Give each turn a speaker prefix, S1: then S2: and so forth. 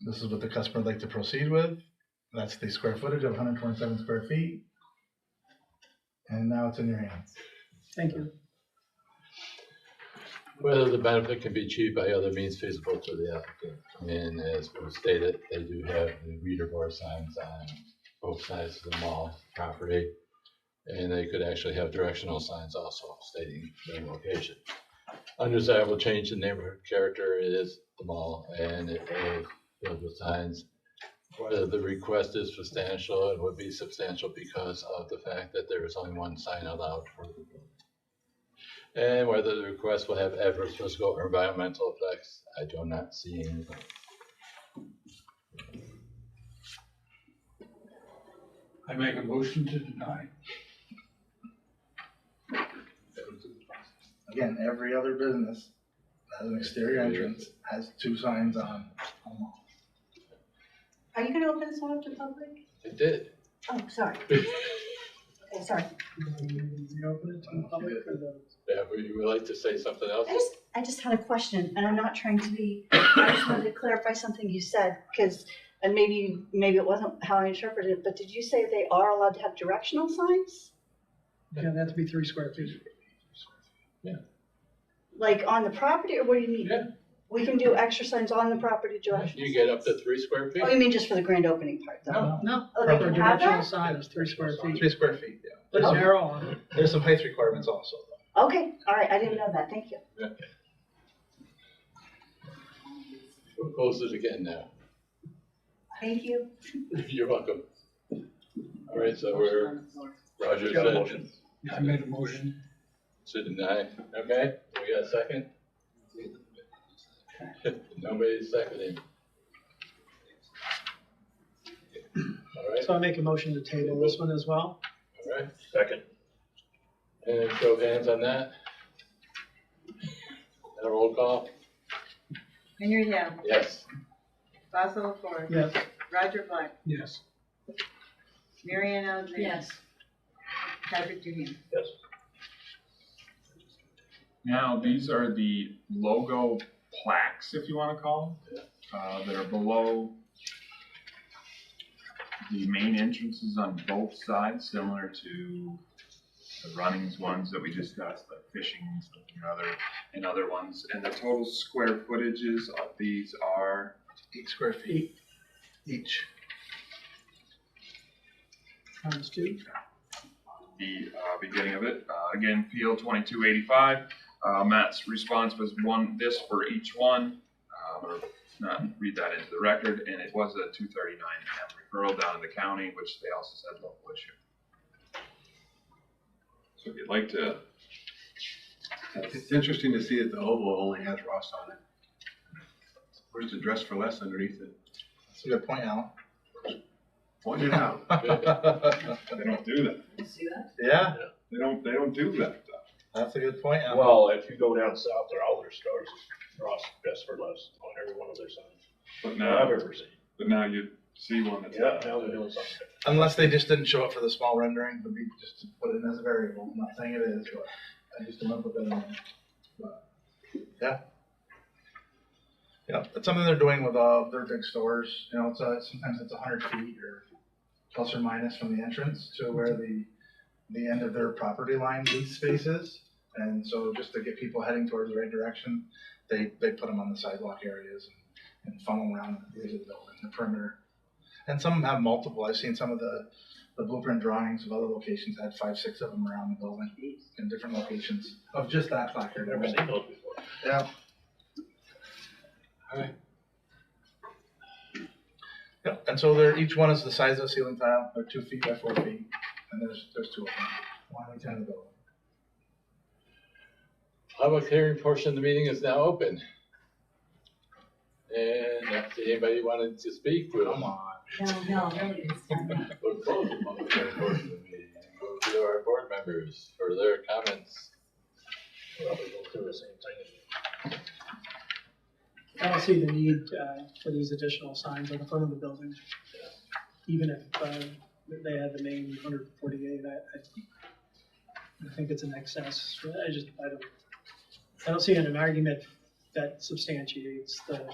S1: This is what the customer would like to proceed with. That's the square footage of 127 square feet. And now it's in your hands.
S2: Thank you.
S3: Whether the benefit can be achieved by other means feasible to the applicant. I mean, as was stated, they do have the reader bar signs on both sides of the mall property. And they could actually have directional signs also stating their location. Undesirable change in neighborhood character is the mall and it is filled with signs. Whether the request is substantial, it would be substantial because of the fact that there is only one sign allowed for the building. And Eh, whether the request will have adverse physical or environmental effects, I do not see any.
S4: I make a motion to deny.
S1: Again, every other business that has an exterior entrance has two signs on.
S5: Are you gonna open this one up to public?
S3: It did.
S5: Oh, sorry. Okay, sorry.
S2: Reopen it to the public for the.
S3: Yeah, would you like to say something else?
S5: I just, I just had a question, and I'm not trying to be, I just wanted to clarify something you said, because, and maybe, maybe it wasn't how I interpreted it, but did you say they are allowed to have directional signs?
S2: Yeah, that'd be three square feet.
S5: Like on the property, or what do you mean?
S3: Yeah.
S5: We can do extra signs on the property directional?
S3: You get up to three square
S5: signs? Oh,
S3: feet?
S5: you mean just for the grand opening part, though?
S3: No.
S2: No.
S5: Oh, they
S2: Proper
S5: can have
S2: directional
S5: that?
S2: sign is three square feet.
S1: Three square feet, yeah.
S2: There's
S1: Oh.
S2: arrow on it.
S1: There's some height requirements also.
S5: Okay, all right, I didn't know that, thank you.
S3: We'll close it again now.
S5: Thank you.
S3: You're welcome. All right, so we're, Roger
S1: Got a
S3: said,
S4: I made a motion.
S3: said deny. Okay, we got a second? Nobody's seconding. All right,
S2: So I make a motion to table this one as well.
S3: all right.
S6: Second.
S3: And show of hands on that. And a roll call?
S7: Henry Hill,
S3: Yes.
S7: Basil Ford,
S2: Yes.
S7: Roger Black,
S4: Yes.
S7: Marianne Alexander. Patrick Duhane.
S6: Yes.
S8: Now, these are the logo plaques, if you wanna call them, uh, that are below the main entrances on both sides, similar to the Runnings ones that we discussed, like fishing and stuff and other, and other ones. And the total square footages of these are,
S1: Eight square feet each.
S2: Times two.
S8: the uh, beginning of it. Uh, again, PL 2285. Uh, Matt's response was one this for each one. Uh, I'm going to not read that into the record. And it was a 239M referral down in the county, which they also said local issue. So if you'd like to,
S9: It's interesting to see that the oval only has Ross on it. Where's the dress for less underneath it?
S1: That's a good point, Alan.
S9: Point it out.
S8: they don't do that.
S7: See that?
S1: Yeah,
S8: They don't, they don't do that.
S1: that's a good point, Um, Alan.
S6: Well, if you go down south, there are all their stars, Ross, best for less on every one of their signs
S8: But
S6: that I've
S8: now,
S6: ever seen.
S8: but now you see one that's
S6: Yeah, now they're doing something.
S1: Unless they just didn't show up for the small rendering, but we just put it in as a variable. I'm not saying it is, but I just came up with that. on- but, Yeah. Yeah, it's something they're doing with, uh, their big stores, you know, it's, uh, sometimes it's a hundred feet or plus or minus from the entrance to where the, the end of their property line lease space is. And so just to get people heading towards the right direction, they, they put them on the sidewalk areas and funnel 'em around the edge of the building, the perimeter. And some have multiple. I've seen some of the, the blueprint drawings of other locations had five, six of them around the building in different locations of just that placard.
S6: Never seen those before.
S1: Yeah.
S3: Alright.
S1: Yep, and so they're, each one is the size of a ceiling tile. They're two feet by four feet, and there's, there's two of them. One on each end of the building.
S3: Public hearing portion of the meeting is now open. And if anybody wanted to speak, we'll,
S1: Come on.
S7: No, no, really, it's not.
S3: we'll close the public hearing portion of the meeting and go to our board members for their comments.
S6: Probably go through the same thing.
S2: I don't see the need uh, for these additional signs on the front of the building. Even if uh, they had the main 148, I, I I think it's an excess. I just, I don't, I don't see an argument that substantiates the